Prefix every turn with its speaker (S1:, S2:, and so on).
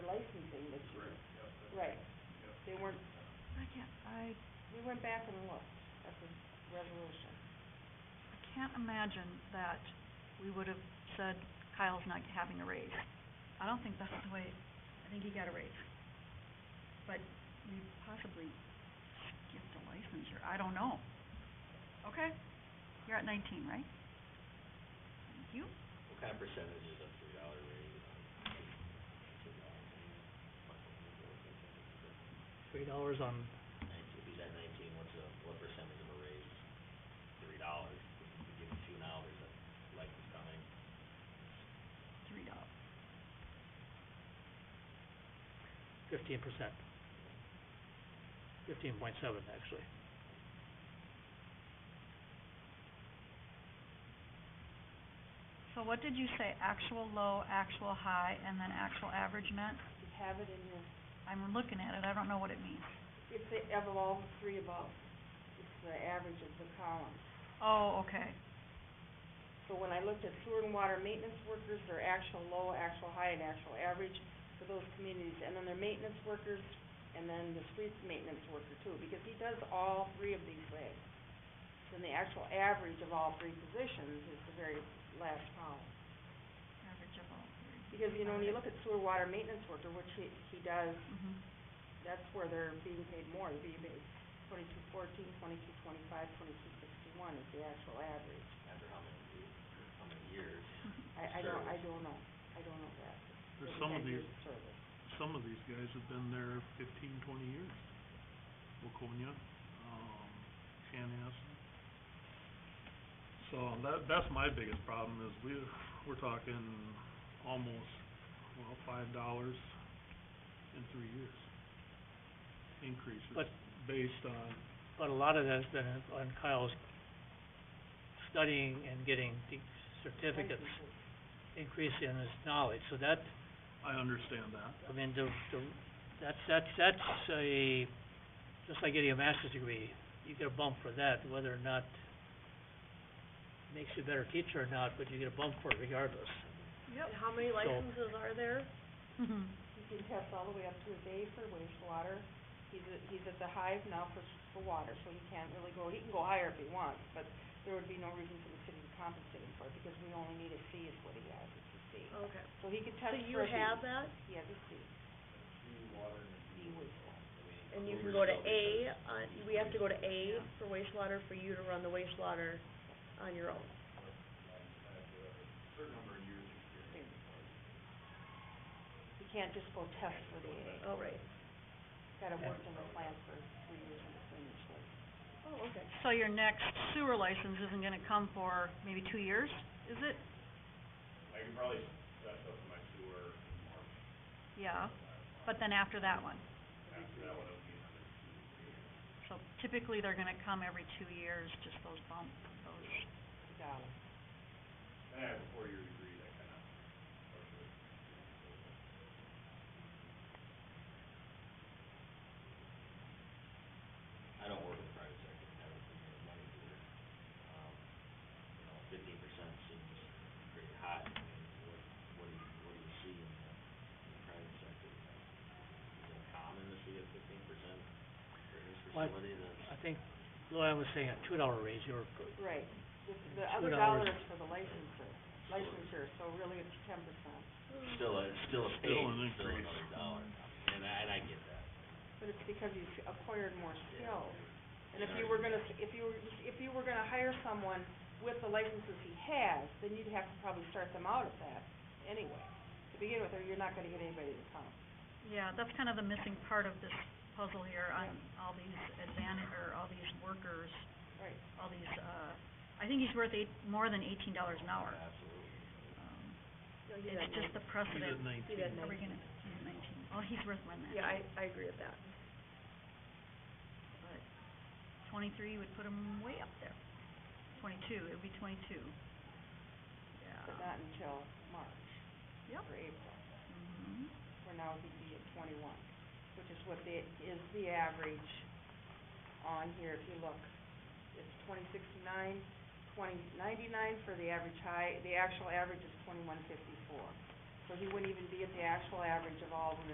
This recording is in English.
S1: can't, I,
S2: We went back and looked at the resolution.
S1: I can't imagine that we would have said Kyle's not having a raise. I don't think that's the way, I think he got a raise. But we possibly skipped a licensure, I don't know. Okay, you're at nineteen, right? Thank you.
S3: What kind of percentage is a three dollar raise on two dollars?
S4: Three dollars on,
S3: Nineteen, if he's at nineteen, what's a, what percentage of a raise? Three dollars, if you give him two now, there's a license coming.
S1: Three dollars.
S4: fifteen percent. Fifteen point seven, actually.
S1: So what did you say, actual low, actual high, and then actual average meant?
S2: You have it in your,
S1: I'm looking at it, I don't know what it means.
S2: it's the, of all the three above, it's the average of the columns.
S1: Oh, okay,
S2: So when I looked at sewer and water maintenance workers, their actual low, actual high, and actual average for those communities, and then their maintenance workers, and then the street maintenance worker too, because he does all three of these things. Then the actual average of all three positions is the very last column.
S1: average of all three.
S2: Because, you know, when you look at sewer water maintenance worker, which he, he does,
S1: hmm
S2: that's where they're being paid more, they're being paid twenty-two fourteen, twenty-two twenty-five, twenty-two sixty-one is the actual average.
S3: After how many, years- how many years?
S2: I, I don't, I
S3: Service.
S2: don't know, I don't know that.
S5: There's
S2: Maybe
S5: some
S2: 10
S5: of these,
S2: years service.
S5: some of these guys have been there fifteen, twenty years. Waconia, um, Chanhassen. So that, that's my biggest problem is we, we're talking almost, well, five dollars in three years. Increases
S4: But-
S5: based on,
S4: But a lot of that's been on Kyle's studying and getting the certificates,
S2: Licenses.
S4: increase in his knowledge, so that,
S5: I understand that.
S4: I mean, the, the, that's, that's, that's a, just like getting a master's degree, you get a bump for that, whether or not makes you a better teacher or not, but you get a bump for it regardless.
S1: Yep.
S6: And how many
S4: So-
S6: licenses are there?
S1: Mhm.
S2: He can test all the way up to his A for wastewater, he's at, he's at the hive now for, for water, so he can't really go, he can go higher if he wants, but there would be no reason for the city to compensate him for it, because we only need a C is what he has, it's a C.
S6: Okay.
S2: So he could
S6: So
S2: test for a
S6: you
S2: B.
S6: have that,
S2: He has a C. D wastewater.
S6: and you can go to A, on, we have to go to A for wastewater for you to run the wastewater on your own.
S2: He can't just go test for the A,
S6: Oh, right.
S2: he's gotta work in the plant for three years in between each license.
S6: Oh, okay.
S1: So your next sewer license isn't gonna come for maybe two years, is it?
S3: I can probably set up my sewer,
S1: Yeah, but then after that one.
S3: after that one, it'll be
S1: So typically, they're gonna come every two years, just those bump, those,
S2: He got it.
S3: I have a four-year degree, that kind of. I don't work in the private sector, I don't think there's money to it. Um, you know, fifteen percent seems pretty high, I mean, what, what do you, what do you see in the, in the private sector? Is it common to see a fifteen percent raise for
S4: Well, I-
S3: somebody that's?
S4: I think Luann was saying a two dollar raise, you were,
S2: Right, the, the
S4: Two
S2: other dollar
S4: dollars.
S2: is for the licensure, licensure, so really it's ten percent,
S3: Still a, still a
S5: Still
S3: pay,
S5: an
S3: still
S5: increase.
S3: another dollar, and I, and I get that.
S2: but it's because you've acquired more skills. And if you
S3: Yeah.
S2: were gonna, if you were, if you were gonna hire someone with the licenses he has, then you'd have to probably start them out at that anyway. To begin with, or you're not gonna get anybody to come.
S1: yeah, that's kind of the missing part of this puzzle here on all these advantage, or all these workers,
S2: Right.
S1: all these, uh, I think he's worth eight, more than eighteen dollars an hour.
S3: Absolutely.
S1: Um,
S6: No, he's at
S1: It's just the
S5: He's at
S1: precedent,
S6: He's
S5: nineteen.
S6: at
S1: are we
S6: nineteen.
S1: gonna, he's at nineteen, oh, he's worth more than that.
S6: Yeah, I, I agree with that.
S1: but twenty-three would put him way up there. Twenty-two, it would be twenty-two.
S2: But
S1: Yeah.
S2: not until March
S1: Yep.
S2: or April,
S1: Mhm.
S2: where now he'd be at twenty-one, which is what the, is the average on here, if you look. It's twenty sixty-nine, twenty ninety-nine for the average high, the actual average is twenty-one fifty-four. So he wouldn't even be at the actual average of all the